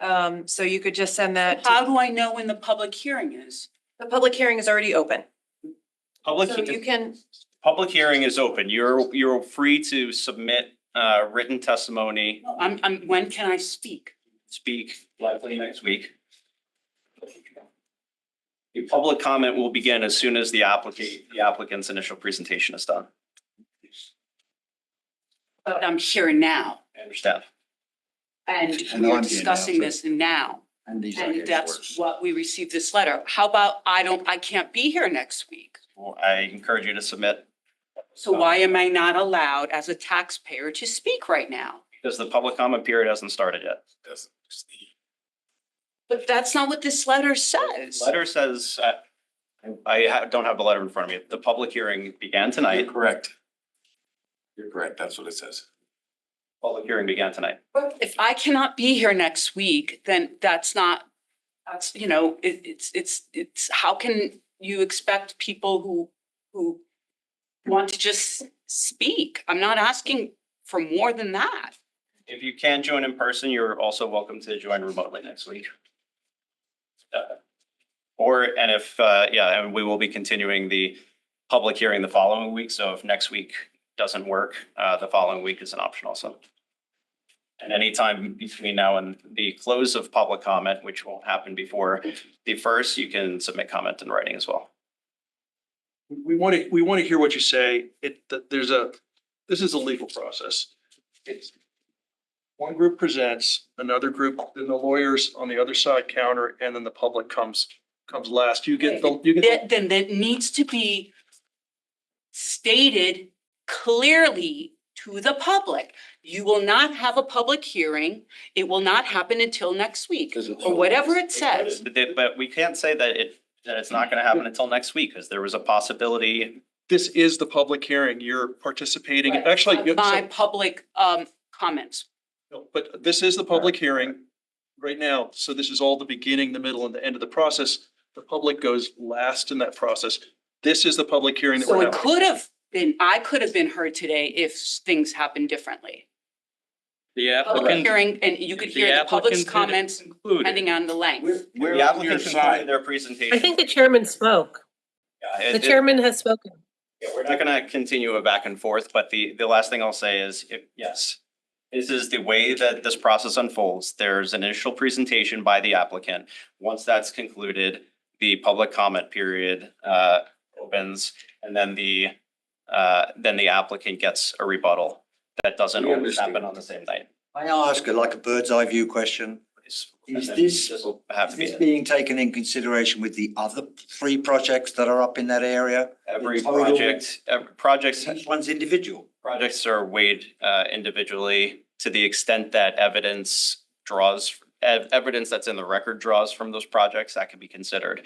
Um, so you could just send that, to- How do I know when the public hearing is? the public hearing is already open. Public, So you can, public hearing is open. You're, you're free to submit, uh, written testimony, I'm, I'm, when can I speak? speak likely next week. Your public comment will begin as soon as the applicant, the applicant's initial presentation is done. But I'm here now I understand. and And we're on here now, discussing so- this now. And these are And his that's words. what we received this letter. How about I don't, I can't be here next week? Well, I encourage you to submit So why am I not allowed as a taxpayer to speak right now? because the public comment period hasn't started yet. But that's not what this letter says. Letter says, uh, I ha- don't have the letter in front of me. The public hearing began tonight. You're correct. You're correct, that's what it says. Public hearing began tonight. If I cannot be here next week, then that's not, that's, you know, it, it's, it's, it's, how can you expect people who, who want to just speak? I'm not asking for more than that. If you can't join in person, you're also welcome to join remotely next week. Uh, Or, and if, uh, yeah, and we will be continuing the public hearing the following week. So if next week doesn't work, uh, the following week is an option also. And anytime between now and the close of public comment, which won't happen before the first, you can submit comment in writing as well. we want to, we want to hear what you say. It, that there's a, this is a legal process. It's One group presents, another group, then the lawyers on the other side counter, and then the public comes, comes last. You get the, you get, Then, then that needs to be stated clearly to the public. You will not have a public hearing. It will not happen until next week, Doesn't- or whatever it says. But they- But we can't say that it, that it's not going to happen until next week because there was a possibility this is the public hearing. You're participating. Right. Actually, you- My public, um, comments. no, but this is the public hearing right now. So this is all the beginning, the middle, and the end of the process. The public goes last in that process. This is the public hearing that So we're it having. could have been, I could have been heard today if s- things happened differently. The Public applicant. hearing, and you could hear the public's comments depending on the length. We're The on applicant your concluded side. their presentation. I think the chairman spoke. Yeah, it- The it- chairman has spoken. yeah, We're not gonna continue a back and forth, but the, the last thing I'll say is, if, yes. This is the way that this process unfolds. There's an initial presentation by the applicant. Once that's concluded, the public comment period, uh, opens. And then the, uh, then the applicant gets a rebuttal. That doesn't We always understand. happen on the same night. May I ask a like a bird's eye view question? It's- Is and this- this'll Have Is to be this it. being taken in consideration with the other three projects that are up in that area? every Corridor? project, every projects Each one's individual. projects are weighed uh, individually to the extent that evidence draws, ev- evidence that's in the record draws from those projects, that can be considered.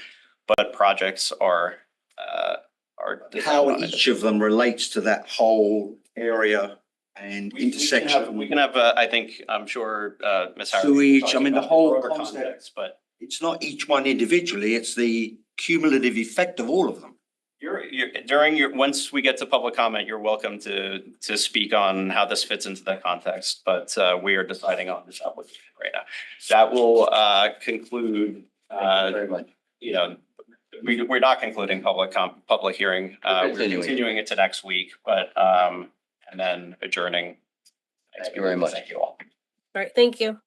But projects are, uh, are. How decided on each of them relates to that whole area and it. We- we can have- We can intersection. have, uh, I think, I'm sure uh, Ms. Howard. Sewage, I talked mean, the about whole broader concept. context, But It's not each one individually, it's the cumulative effect of all of them. You're, you're, during your, once we get to public comment, you're welcome to, to speak on how this fits into that context, but, uh, we are deciding on this application right now. That will, uh, conclude, uh, Very much. you know, we, we're not concluding public com, public hearing. Uh, we're Continuing. continuing it to next week, but, um, and then adjourning. Thank you very much. Thank you all. All right, thank you.